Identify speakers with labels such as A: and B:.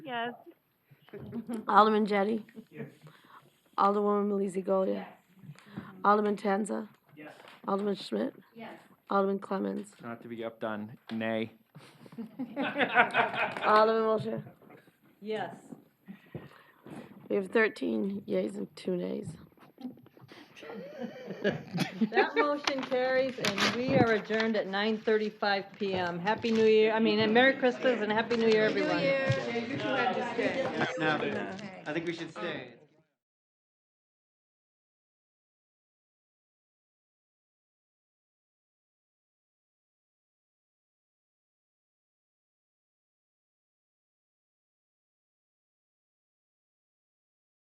A: Yes.
B: Alderman Jettie? Alderwoman Malizia Golia? Alderman Tanza?
C: Yes.
B: Alderman Schmidt?
A: Yes.
B: Alderman Clemmons?
C: Not to be updone, nay.
B: Alderman Wiltshire?
D: Yes.
B: We have thirteen yeas and two nays.
D: That motion carries, and we are adjourned at 9:35 PM. Happy New Year, I mean, and Merry Christmas and Happy New Year, everyone.
A: New year.
E: No,
A: Okay.
E: I think we should stay.